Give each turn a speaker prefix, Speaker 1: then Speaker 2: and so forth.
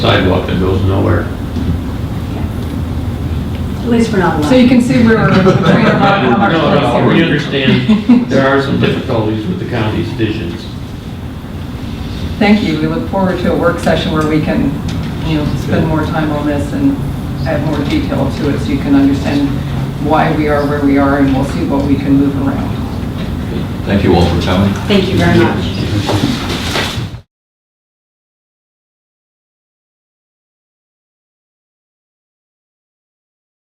Speaker 1: sidewalk that goes nowhere.
Speaker 2: At least we're not
Speaker 3: So you
Speaker 2: alone.
Speaker 3: can see where we're trying to
Speaker 1: No,
Speaker 3: have
Speaker 1: no,
Speaker 3: our
Speaker 1: we
Speaker 3: place here.
Speaker 1: understand there are some difficulties with the county's visions.
Speaker 3: Thank you. We look forward to a work session where we can, you know, spend more time on this and add more detail to it so you can understand why we are where we are and we'll see what we can move around.
Speaker 4: Thank you all for coming.
Speaker 2: Thank you very much.